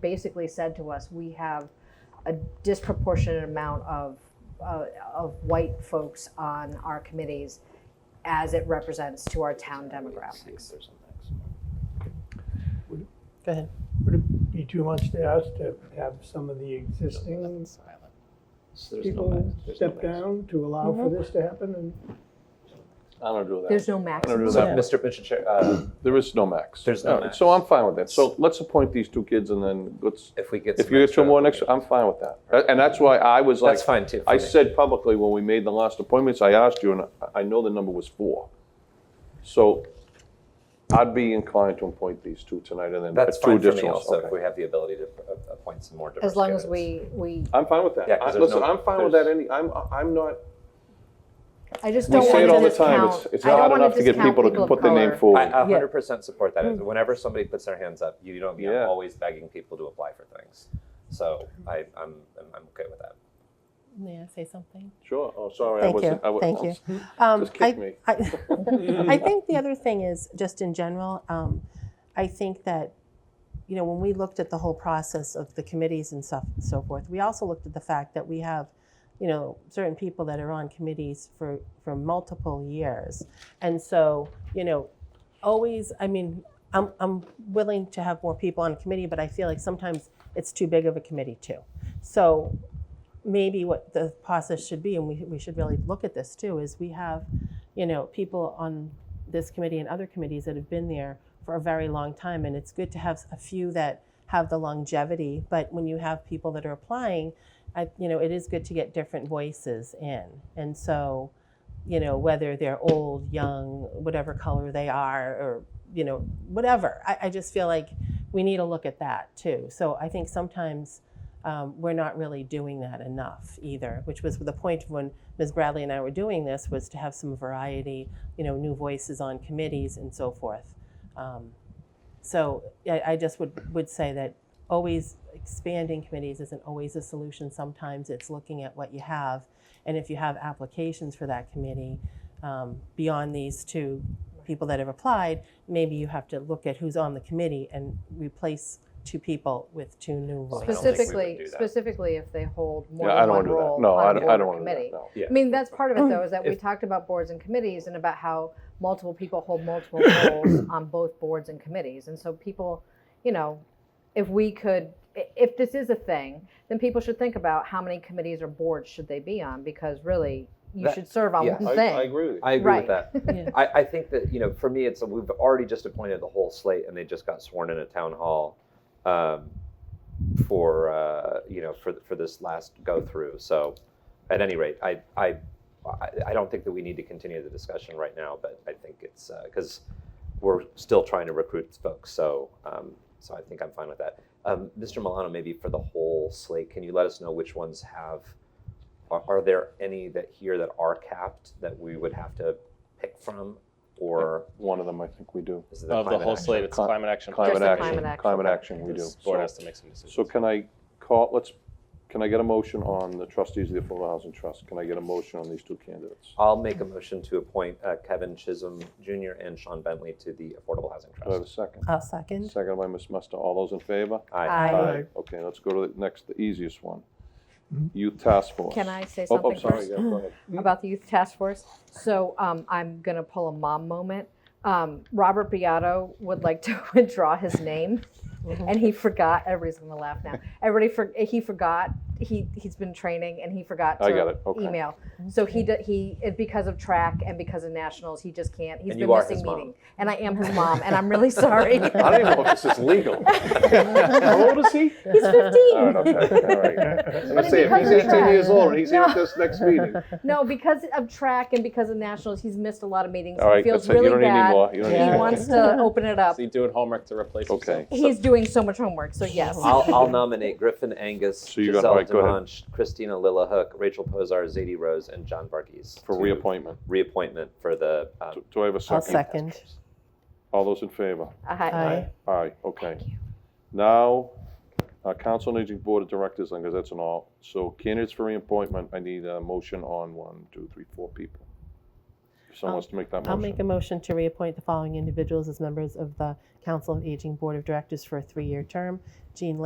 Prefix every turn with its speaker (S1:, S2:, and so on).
S1: basically said to us, we have a disproportionate amount of, uh, of white folks on our committees as it represents to our town demographics.
S2: Go ahead.
S3: Would it be too much to ask to have some of the existing people step down to allow for this to happen? And
S4: I don't do
S1: There's
S4: that.
S1: no
S4: I don't
S1: maximum.
S4: do that. Mr. Mr. Chair, uh,
S5: There is no max.
S4: There's no
S5: All right,
S4: max.
S5: So I'm fine with that. So let's appoint these two kids and then let's,
S4: if we get
S5: if
S4: some
S5: you get
S4: extra
S5: some more next, I'm fine with that. That- And that's why I was like.
S4: That's fine too. for
S5: I
S4: me.
S5: said publicly when we made the last appointments, I asked you, and I- I know the number was four. So I'd be inclined to appoint these two tonight and then uh,
S4: That's
S5: two
S4: fine for me
S5: additional.
S4: also, if we have the ability to uh, appoint some more diverse
S1: As long as
S4: candidates.
S1: we, we,
S5: I'm fine with that.
S4: Yeah, 'cause
S5: I-
S4: there's
S5: Listen,
S4: no-
S5: I'm fine with
S4: there's-
S5: that any, I'm, I'm not,
S1: I just
S5: we
S1: don't
S5: say it all
S1: want to
S5: the time,
S1: discount.
S5: it's, it's
S1: I don't
S5: not
S1: wanna
S5: enough to get
S1: discount
S5: people to
S1: of
S5: put their name
S1: color.
S5: forward.
S4: I a hundred percent support that.
S1: Mm.
S4: Whenever somebody puts their hands up, you don't,
S5: Yeah.
S4: I'm always begging people to apply for things. So I, I'm, I'm, I'm okay with that.
S2: May I say something?
S5: Sure, oh, sorry, I
S2: Thank
S5: wasn't. I
S2: you.
S5: wa-
S2: Thank you. Um,
S5: Just
S2: I-
S5: kick me.
S2: I, I think the other thing is just in general, um, I think that, you know, when we looked at the whole process of the committees and stuff and so forth, we also looked at the fact that we have, you know, certain people that are on committees for, for multiple years. And so, you know, always, I mean, I'm, I'm willing to have more people on a committee, but I feel like sometimes it's too big of a committee too. So maybe what the process should be, and we, we should really look at this too, is we have, you know, people on this committee and other committees that have been there for a very long time. And it's good to have a few that have the longevity, but when you have people that are applying, I, you know, it is good to get different voices in. And so, you know, whether they're old, young, whatever color they are, or, you know, whatever. I, I just feel like we need to look at that too. So I think sometimes um, we're not really doing that enough either, which was the point when Ms. Bradley and I were doing this was to have some variety, you know, new voices on committees and so forth. Um, so I, I just would, would say that always expanding committees isn't always a solution. Sometimes it's looking at what you have. And if you have applications for that committee um, beyond these two people that have applied, maybe you have to look at who's on the committee and replace two people with two new
S4: Well, I
S2: voices.
S4: don't think we would
S1: Specifically,
S4: do that.
S1: specifically if they hold more
S5: Yeah, I
S1: than
S5: don't
S1: one
S5: want to do that.
S1: role
S5: No, I
S1: on
S5: don't, I
S1: board
S5: don't
S1: or
S5: want to do that,
S1: committee.
S5: no.
S4: Yeah.
S1: I mean, that's part of it though, is that we
S4: If-
S1: talked about boards and committees and about how multiple people hold multiple roles on both boards and committees. And so people, you know, if we could, i- if this is a thing, then people should think about how many committees or boards should they be on? Because really, you
S4: That-
S1: should serve on
S4: yeah.
S1: one
S5: I- I
S1: thing.
S5: agree with you.
S4: I agree
S1: Right.
S4: with that.
S2: Yeah.
S4: I, I think that you know, for me, it's we've already just appointed the whole slate, and they just got sworn in at town hall um, for uh, you know for for this last go through. So, at any rate, I I I- I don't think that we need to continue the discussion right now, but I think it's because we're still trying to recruit folks. So um, so I think I'm fine with that. Um, Mr. Milano, maybe for the whole slate, can you let us know which ones have? Are, are there any that here that are capped that we would have to pick from, or
S5: One of them, I think we do.
S4: is it
S6: Of the
S4: climate
S6: whole
S4: action?
S6: slate, it's
S5: Cli-
S6: climate action.
S1: Just
S5: Climate
S1: the
S5: action,
S1: climate action.
S5: climate action, we do.
S6: This board
S5: So-
S6: has to make some decisions.
S5: So can I call, let's, can I get a motion on the trustees of the Affordable Housing Trust? Can I get a motion on these two candidates?
S4: I'll make a motion to appoint uh, Kevin Chisholm Jr. and Sean Bentley to the Affordable Housing
S5: Do I have a
S4: Trust.
S5: second?
S2: I'll second.
S5: Second by Ms. Musto. All those in favor?
S4: Aye.
S1: I,
S3: Aye.
S5: Okay, let's go to the next, the easiest one. Youth Task Force.
S1: can I say
S5: Oh,
S1: something
S5: I'm sorry,
S1: first?
S5: yeah, go ahead.
S1: about the youth task force. So um, I'm going to pull a mom moment. Um, Robert Beato would like to withdraw his name,
S5: Mm-hmm.
S1: and he forgot. Everybody's going to laugh now. Everybody, for, he forgot. He he's been training, and he forgot to
S5: I got it, okay. Mm-hmm.
S1: email. So he d- he it- because of track and because of nationals, he just can't. He's
S4: And
S1: been
S4: you are
S1: missing
S4: his mom.
S1: meeting, and I am his mom, and I'm really sorry.
S5: I don't even know if this is legal. How old is he?
S1: he's 15.
S5: All right, okay,
S1: But
S5: all right. I'm gonna
S1: it
S5: say, if
S1: becomes
S5: he's
S1: a
S5: 18
S1: trend.
S5: years old, he's here
S1: No.
S5: at this next meeting.
S1: No, because of track and because of nationals, he's missed a lot of meetings.
S5: All right,
S1: he feels
S5: that's it, you
S1: really
S5: don't need
S1: bad.
S5: any more. You don't
S1: He
S5: need any more.
S1: wants to open it up.
S6: Is he doing homework to replace
S5: Okay.
S6: himself?
S1: He's doing so much homework, so yes.
S4: I'll, I'll nominate Griffin Angus,
S5: So you got-
S4: Giselle
S5: alright, go ahead.
S4: DeMonch, Christina Lillahook, Rachel Posar, Zadie Rose, and John Barkis.
S5: For
S4: to
S5: reappointment.
S4: Reappointment for the. Um,
S5: Do- Do I have a
S2: I'll
S5: second?
S2: second.
S5: All those in favor?
S1: Aye.
S2: Aye.
S5: Aye, okay. Now, uh, Council on Aging Board of Directors, because that's an all. So candidates for reappointment, I need a motion on one, two, three, four people. If someone wants to make that
S2: I'll make a
S5: motion.
S2: motion to reappoint the following individuals as members of the Council of Aging Board of Directors for a three-year term. Jean